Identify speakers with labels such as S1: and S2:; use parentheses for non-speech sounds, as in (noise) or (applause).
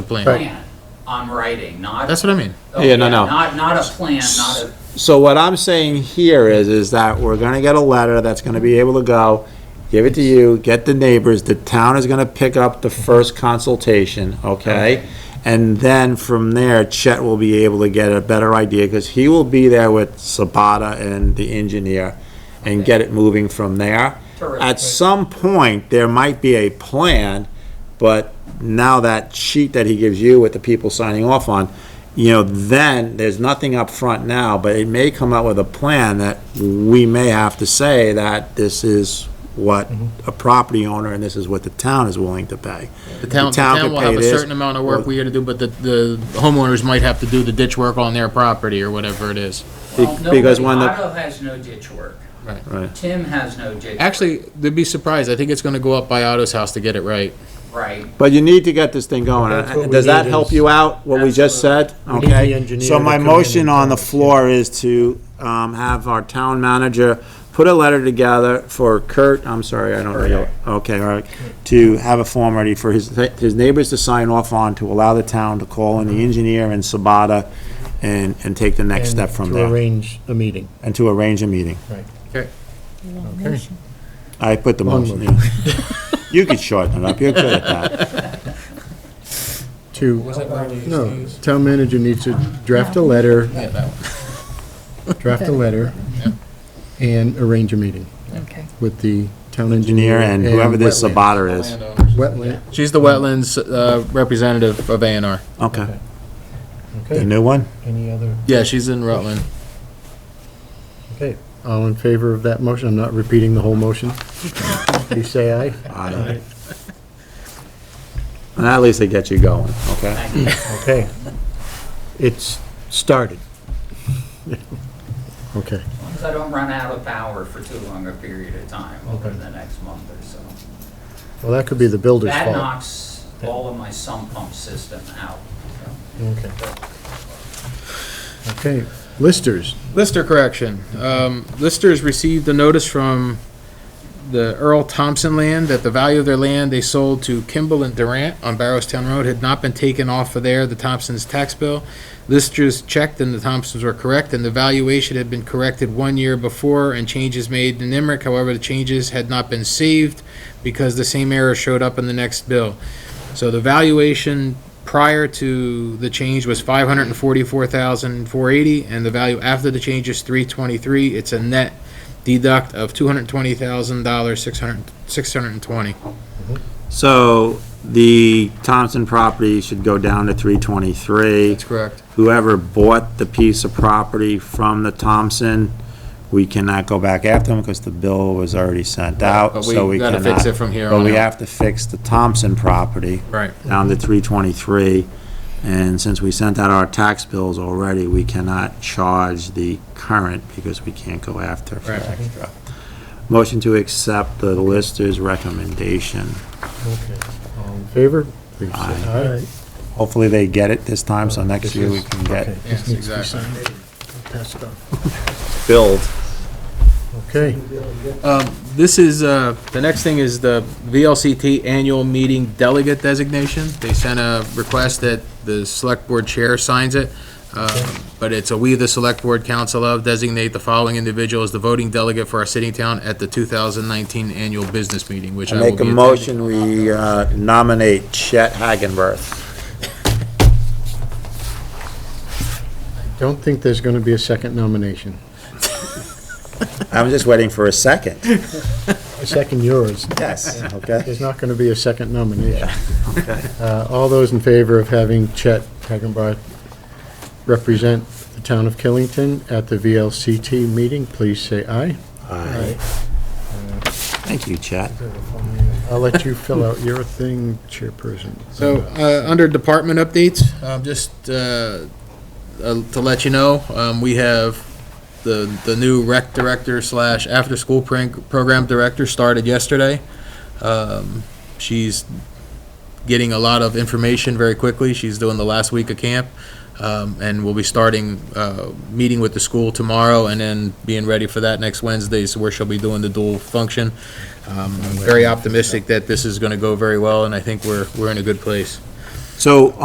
S1: plan.
S2: plan on writing, not.
S1: That's what I mean.
S2: oh,
S3: Yeah, no, no.
S2: Not, not a plan, not a,
S3: So what I'm saying here is, is that we're gonna get a letter that's gonna be able to go, give it to you, get the neighbors, the town is gonna pick up the first consultation, okay? And then from there, Chet will be able to get a better idea, because he will be there with Sabata and the engineer, and get it moving from there.
S2: Terrific.
S3: At some point, there might be a plan, but now that sheet that he gives you with the people signing off on, you know, then, there's nothing up front now, but it may come out with a plan that we may have to say that this is what a property owner and this is what the town is willing to pay.
S1: The town, the
S3: town
S1: town
S3: could
S1: will
S3: pay
S1: have a
S3: this,
S1: certain amount of work
S3: or-
S1: we gotta do, but the, the homeowners might have to do the ditch work on their property or whatever it is.
S2: well,
S3: Be- because
S2: nobody,
S3: when the-
S2: Otto has no ditch work.
S1: Right.
S3: Right.
S2: Tim has no ditch. work,
S1: Actually, they'd be surprised. I think it's gonna go up by Otto's house to get it right.
S2: Right,
S3: But you need to get this thing
S4: That's what
S3: going.
S4: we
S3: Does that
S4: need
S3: help
S4: is-
S3: you out, what we just said?
S4: need the
S3: Okay?
S4: engineer
S3: So
S4: to
S3: my
S4: come in
S3: motion
S4: and
S3: on
S4: tell
S3: the
S4: us,
S3: floor is to um, have our town manager put a letter together for Kurt, I'm sorry, I don't know. your- Okay, all right, to have a form ready for his, his neighbors to sign off on, to allow the town to call in the engineer and Sabata and, and take the next
S4: and
S3: step from
S4: To
S3: there,
S4: arrange a meeting.
S3: and to arrange a meeting.
S4: Okay.
S3: I put the
S4: Long
S3: motion, yeah. You could shorten it up, you're good at that.
S4: To, no, town manager needs to draft a letter, draft a letter, and arrange a meeting
S5: Okay.
S4: with the town engineer.
S3: Engineer and whoever this
S4: wetland-
S3: Sabata is.
S4: Wetland,
S1: She's the wetlands, uh, representative of A and R.
S3: Okay, the
S4: okay,
S3: new one?
S4: any other,
S1: Yeah, she's in Rutland.
S4: okay. All in favor of that motion? I'm not repeating the whole motion. Please say aye.
S3: Aye. (laughs) And at least they get you going, okay?
S2: thank you.
S4: Okay. It's started. Okay.
S2: As long as I don't run out of power for too long a period of time over
S4: Okay.
S2: the next month or so.
S4: Well, that could be the builder's
S2: That
S4: fault.
S2: knocks all of my sump pump system out.
S4: Okay. Okay, listers.
S1: Lister correction. Um, Listers received a notice from the Earl Thompson land that the value of their land they sold to Kimball and Durant on Barrowstown Road had not been taken off of there, the Thompsons' tax bill. Listers checked and the Thompsons were correct, and the valuation had been corrected one year before and changes made in Emmerich. However, the changes had not been saved because the same error showed up in the next bill. So the valuation prior to the change was five hundred and forty-four thousand, four eighty, and the value after the change is three twenty-three. It's a net deduct of two hundred and twenty thousand dollars, six hundred, six hundred and twenty.
S3: So the Thompson property should go down to three twenty-three.
S1: correct.
S3: Whoever bought the piece of property from the Thompson, we cannot go back after them because the bill was already sent out,
S1: But
S3: so
S1: we
S3: we
S1: gotta
S3: cannot.
S1: fix it from here
S3: But
S1: on
S3: we
S1: out.
S3: have to fix the Thompson property
S1: Right.
S3: down to three twenty-three. And since we sent out our tax bills already, we cannot charge the current because we can't go after for
S1: Right.
S3: extra. Motion to accept the lister's recommendation.
S4: Okay. All in favor? Please say
S3: Aye.
S4: aye.
S3: Hopefully they get it this time, so next
S4: Uh, This
S3: year we
S4: is-
S3: can get
S4: okay, this
S1: Yes,
S4: needs to be
S1: exactly.
S4: signed. I'll pass it on.
S3: billed.
S4: Okay,
S1: Um, this is, uh, the next thing is the VLCT annual meeting delegate designation. They sent a request that the select board chair signs it. Uh, But it's a we, the select board council of designate the following individual as the voting delegate for our sitting town at the 2019 annual business meeting, which I will be
S3: Make a
S1: attending.
S3: motion, we uh, nominate Chet Hagenberth.
S4: don't think there's going to be a second nomination.
S3: I'm just waiting for a second.
S4: A second yours.
S3: Yes, okay?
S4: There's not going to be a second nomination. Uh, All those in favor of having Chet Hagenbach represent the town of Killington at the VLCT meeting, please say aye.
S3: Aye. Thank you, Chet.
S4: I'll let you fill out your thing, chairperson.
S1: So, uh, under department updates, um, just, uh, uh, to let you know, um, we have the, the new rec director slash after-school prank- program director started yesterday. Um, she's getting a lot of information very quickly. She's doing the last week of camp. Um, and we'll be starting, uh, meeting with the school tomorrow and then being ready for that next Wednesday, so where she'll be doing the dual function. Um, I'm very optimistic that this is gonna go very well, and I think we're, we're in a good place.
S3: So